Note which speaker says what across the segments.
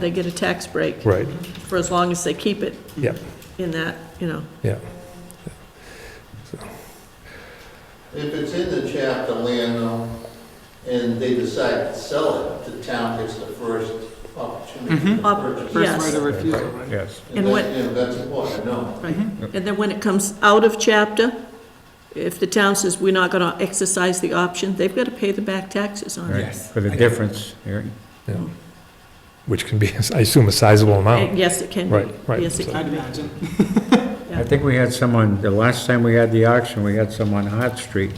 Speaker 1: They get a tax break
Speaker 2: Right,
Speaker 1: for as long as they keep it
Speaker 2: yeah,
Speaker 1: in that, you know.
Speaker 2: yeah.
Speaker 3: If it's in the chapter land though, and they decide to sell it, the town gets the first opportunity to
Speaker 1: Op-
Speaker 3: purchase.
Speaker 1: yeah.
Speaker 3: it.
Speaker 1: Yes.
Speaker 4: First right of refusal, right?
Speaker 5: Yes.
Speaker 1: And
Speaker 3: And
Speaker 1: what-
Speaker 3: that, you know, that's important, no.
Speaker 1: Right. And then when it comes out of chapter, if the town says we're not going to exercise the option, they've got to pay the back taxes on
Speaker 5: right,
Speaker 1: it.
Speaker 4: Yes.
Speaker 5: For the difference, yeah.
Speaker 2: yeah. Which can be, I assume, a sizable
Speaker 1: And
Speaker 2: amount.
Speaker 1: Yes, it can be.
Speaker 2: Oh. Right, right.
Speaker 1: Yes, it
Speaker 4: I'd
Speaker 1: can be.
Speaker 4: imagine.
Speaker 5: I think we had someone, the last time we had the auction, we had some on Hart Street,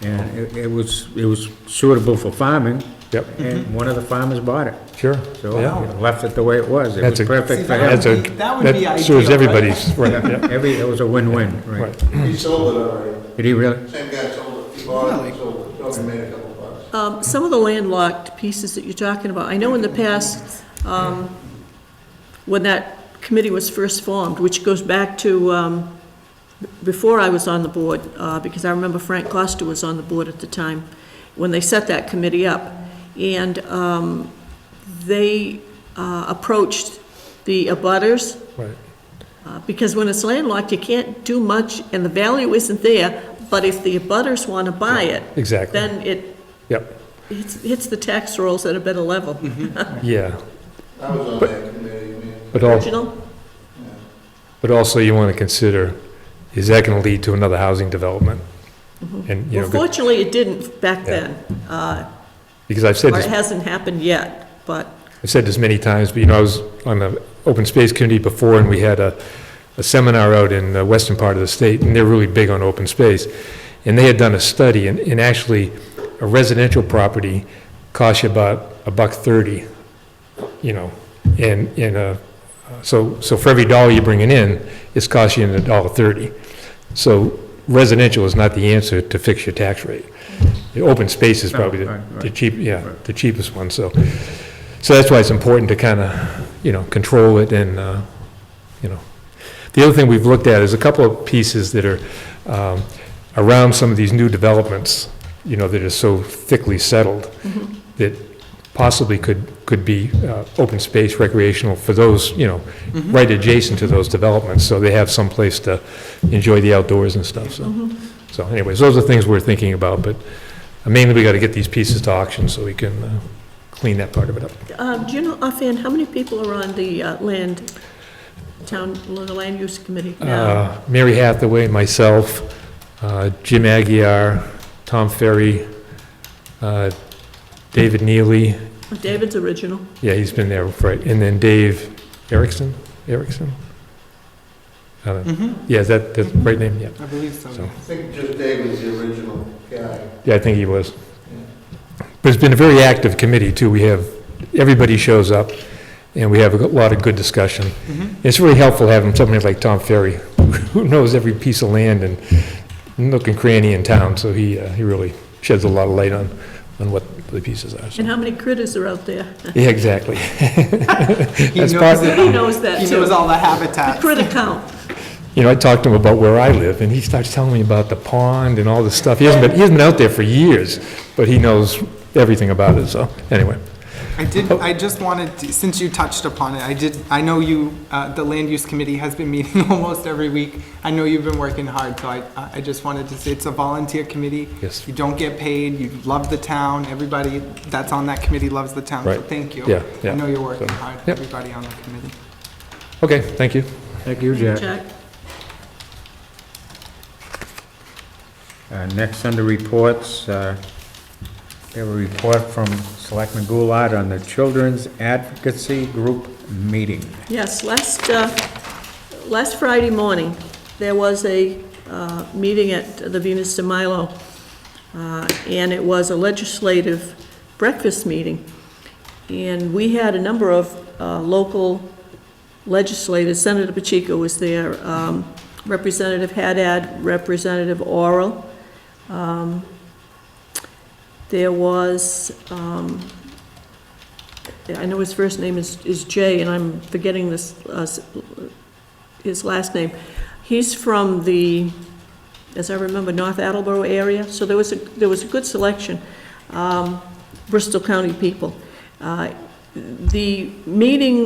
Speaker 5: and it- it was, it was suitable for farming,
Speaker 2: Yep,
Speaker 5: and one of the farmers bought it.
Speaker 2: sure,
Speaker 5: So
Speaker 2: yeah.
Speaker 5: it left it the way it was. It
Speaker 2: That's
Speaker 5: was
Speaker 2: a-
Speaker 5: perfect for him.
Speaker 2: That's a,
Speaker 4: That would be
Speaker 2: that serves
Speaker 4: ideal, right?
Speaker 2: everybody's, right, yeah,
Speaker 5: Every, it was a win-win, right.
Speaker 2: right.
Speaker 3: He sold it already.
Speaker 5: Did he really?
Speaker 3: Same guy sold it, he bought it, sold it, so he made a couple bucks.
Speaker 1: Um, Some of the landlocked pieces that you're talking about, I know in the past, um, when that committee was first formed, which goes back to um, b- before I was on the board, uh, because I remember Frank Costa was on the board at the time, when they set that committee up. And um, they uh, approached the abutters
Speaker 2: Right,
Speaker 1: uh, Because when it's landlocked, you can't do much, and the value isn't there, but if the abutters want to buy it,
Speaker 2: exactly,
Speaker 1: then it
Speaker 2: yep,
Speaker 1: hits hits the tax rolls at a better level.
Speaker 2: Mm-hmm. yeah.
Speaker 3: I was on that committee, man.
Speaker 2: But all,
Speaker 1: Original?
Speaker 2: But also you want to consider, is that going to lead to another housing development? And, you
Speaker 1: Well,
Speaker 2: know,
Speaker 1: fortunately, it didn't back
Speaker 2: Yeah.
Speaker 1: then, uh,
Speaker 2: because I've said
Speaker 1: or it
Speaker 2: this,
Speaker 1: hasn't happened yet, but,
Speaker 2: I've said this many times, but you know, I was on the open space committee before and we had a, a seminar out in the western part of the state and they're really big on open space. And they had done a study and, and actually a residential property costs you about a buck thirty, you know, and, and, uh, so, so for every dollar you're bringing in, it's costing you a dollar thirty. So residential is not the answer to fix your tax rate. The open space is
Speaker 5: No,
Speaker 2: probably
Speaker 5: Oh, right,
Speaker 2: the, the
Speaker 5: right.
Speaker 2: cheap, yeah,
Speaker 5: Right.
Speaker 2: the cheapest one, so. So that's why it's important to kind of, you know, control it and, uh, you know. The other thing we've looked at is a couple of pieces that are um, around some of these new developments, you know, that are so thickly settled that possibly could, could be uh, open space recreational for those, you know, right adjacent to those developments, so they have some place to enjoy the outdoors and stuff, so. So anyways, those are things we're thinking about, but uh, mainly we got to get these pieces to auction so we can uh, clean that part of it up.
Speaker 1: um, do you know offhand, how many people are on the uh, land, town, the land use committee now?
Speaker 2: Uh, Mary Hathaway, myself, uh, Jim Aguirre, Tom Ferry, uh, David Neely,
Speaker 1: David's original,
Speaker 2: yeah, he's been there, right, and then Dave Erickson, Erickson? I don't know.
Speaker 1: Mm-hmm.
Speaker 4: Mhm.
Speaker 2: Yeah, is that the right name? Yeah,
Speaker 4: I believe so.
Speaker 2: So-
Speaker 3: I think just Dave was the original guy.
Speaker 2: yeah, I think he was.
Speaker 3: Yeah.
Speaker 2: But it's been a very active committee, too. We have, everybody shows up, and we have a lot of good discussion.
Speaker 4: Mhm.
Speaker 2: It's really helpful having somebody like Tom Ferry, who knows every piece of land and nook and cranny in town, so he, uh, he really sheds a lot of light on, on what the pieces are. so.
Speaker 1: and how many critters are out there?
Speaker 2: Yeah, exactly.
Speaker 4: He
Speaker 2: That's
Speaker 4: knows
Speaker 2: part-
Speaker 4: it.
Speaker 1: He knows that,
Speaker 4: He
Speaker 1: too.
Speaker 4: knows all the habitats.
Speaker 1: Critter count,
Speaker 2: You know, I talked to him about where I live, and he starts telling me about the pond and all this stuff. He hasn't been, he hasn't been out there for years, but he knows everything about it, so, anyway.
Speaker 4: I did, I just wanted, to- since you touched upon it, I did, I know you, uh, the land use committee has been meeting almost every week. I know you've been working hard, so I, I just wanted to say, it's a volunteer committee.
Speaker 2: Yes.
Speaker 4: You don't get paid, you love the town, everybody that's on that committee loves the town, so
Speaker 2: Right.
Speaker 4: thank you.
Speaker 2: Yeah, yeah.
Speaker 4: I know you're working
Speaker 2: So,
Speaker 4: hard,
Speaker 2: yeah.
Speaker 4: everybody on the committee.
Speaker 2: Okay, thank you.
Speaker 5: Thank you, Jack.
Speaker 1: Jack.
Speaker 5: Uh, Next under reports, uh, we have a report from Selectman Goulart on the Children's Advocacy Group meeting.
Speaker 1: Yes, last, uh, last Friday morning, there was a uh, meeting at the Venus de Milo, uh, and it was a legislative breakfast meeting. And we had a number of uh, local legislators, Senator Pacheco was there, um, Representative Haddad, Representative Oral. Um, There was, um, I know his first name is, is Jay, and I'm forgetting this, uh, s- his last name. He's from the, as I remember, North Attleboro area, so there was a, there was a good selection, um, Bristol County people. Uh, the meeting